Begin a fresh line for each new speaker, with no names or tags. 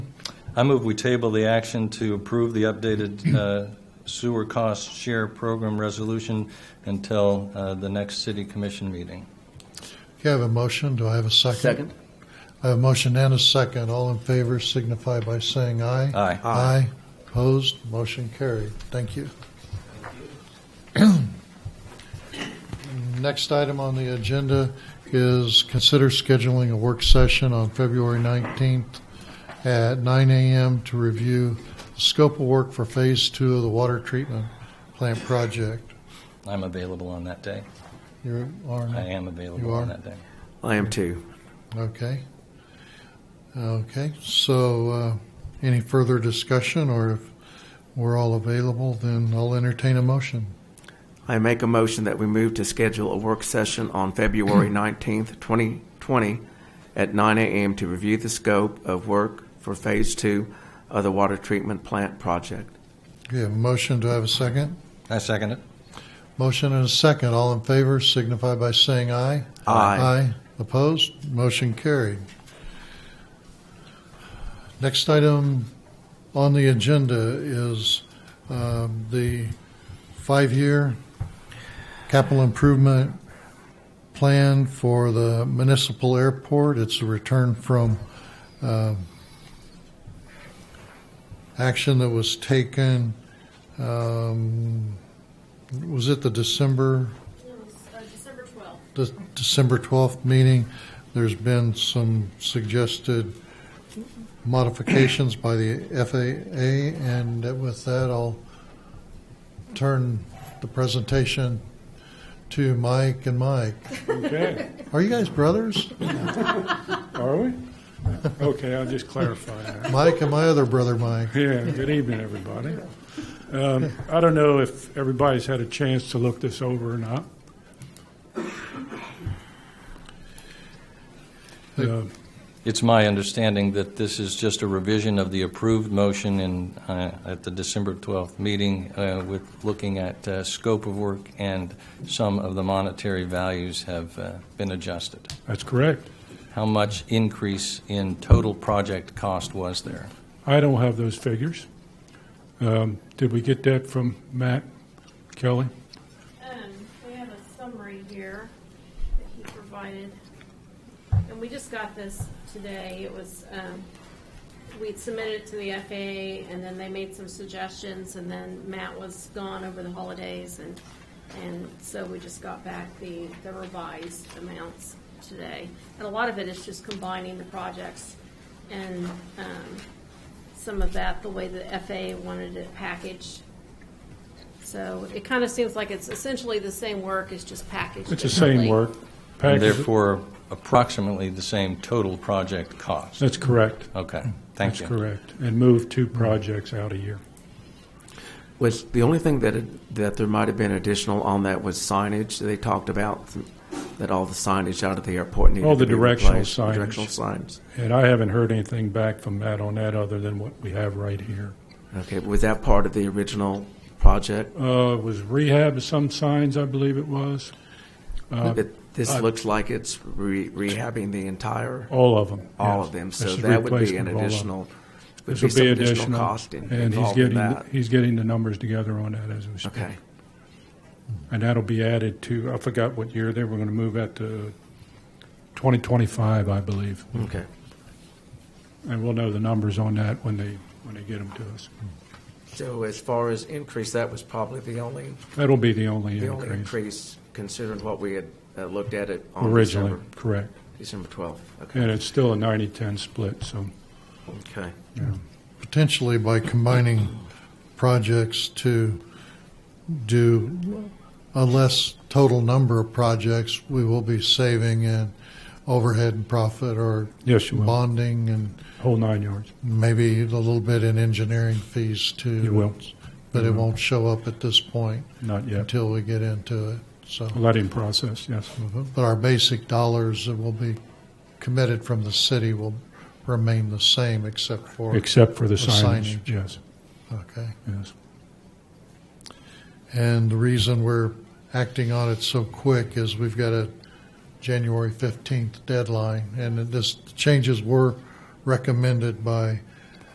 I move we table the action to approve the updated uh, sewer cost share program resolution until uh, the next city commission meeting.
Okay, I have a motion. Do I have a second?
Second.
I have a motion and a second. All in favor signify by saying aye.
Aye.
Aye. Opposed? Motion carried. Thank you. Next item on the agenda is consider scheduling a work session on February 19th at 9 a.m. to review the scope of work for Phase 2 of the water treatment plant project.
I'm available on that day.
You are?
I am available
You are?
on that day.
I am too.
Okay. Okay, so uh, any further discussion, or if we're all available, then I'll entertain a motion.
I make a motion that we move to schedule a work session on February 19th, 2020 at 9 a.m. to review the scope of work for Phase 2 of the water treatment plant project.
We have a motion, do I have a second?
I second it.
Motion and a second, all in favor signify by saying aye.
Aye.
Aye. Opposed? Motion carried. Next item on the agenda is um, the five-year capital improvement plan for the municipal airport. It's a return from um, action that was taken, um, was it the December
It was uh, December 12th.
the December 12th meeting, there's been some suggested modifications by the FAA, and with that, I'll turn the presentation to Mike and Mike.
Okay,
Are you guys brothers?
are we? Okay, I'll just clarify that.
Mike and my other brother, Mike.
Yeah, good evening, everybody. Um, I don't know if everybody's had a chance to look this over or not. Uh,
It's my understanding that this is just a revision of the approved motion in, uh, at the December 12th meeting uh, with looking at uh, scope of work and some of the monetary values have uh, been adjusted.
That's correct.
How much increase in total project cost was there?
I don't have those figures. Um, Did we get that from Matt Kelly?
Um, We have a summary here that he provided. And we just got this today. It was, um, we'd submitted it to the FAA, and then they made some suggestions, and then Matt was gone over the holidays, and, and so we just got back the, the revised amounts today. And a lot of it is just combining the projects and um, some of that, the way the FAA wanted it packaged. So it kind of seems like it's essentially the same work, it's just packaged
It's the same
differently.
work.
And
Package-
Therefore, approximately the same total project cost.
That's correct.
Okay, thank you.
That's correct. And move two projects out a year.
Was the only thing that it, that there might have been additional on that was signage. They talked about that all the signage out of the airport needed
All the
to be
directional
replaced.
signage.
Directional signs.
And I haven't heard anything back from Matt on that other than what we have right here.
Okay, was that part of the original project?
Uh, was rehab of some signs, I believe it was, Uh,
It- this looks like it's re- rehabbing the entire,
all of them.
all
yes.
of them.
This
So
is
that would be an
replacement of all of 'em.
additional, would
This
be
will
some
be
additional
additional,
cost in-
and he's
involved in
getting,
that.
he's getting the numbers together on that as we speak.
Okay,
And that'll be added to, I forgot what year they were going to move that to 2025, I believe.
okay.
And we'll know the numbers on that when they, when they get them to us.
So as far as increase, that was probably the only,
That'll be the only
the only
increase
increase considering what we had uh, looked at it on
originally,
December,
correct.
December 12th. Okay,
And it's still a 90-10 split, so,
okay.
yeah.
potentially by combining projects to do a less total number of projects, we will be saving in overhead and profit or
Yes, you will.
bonding and
whole nine yards.
maybe a little bit in engineering fees too.
You will. Mm-hmm.
But it won't show up at this point
Not yet.
until we get into it. So, Mm-hmm.
Letting process, yes.
but our basic dollars that will be committed from the city will remain the same except for,
Except for the
The
signage,
signage.
yes,
okay.
yes.
And the reason we're acting on it so quick is we've got a January 15th deadline, and this, the changes were recommended by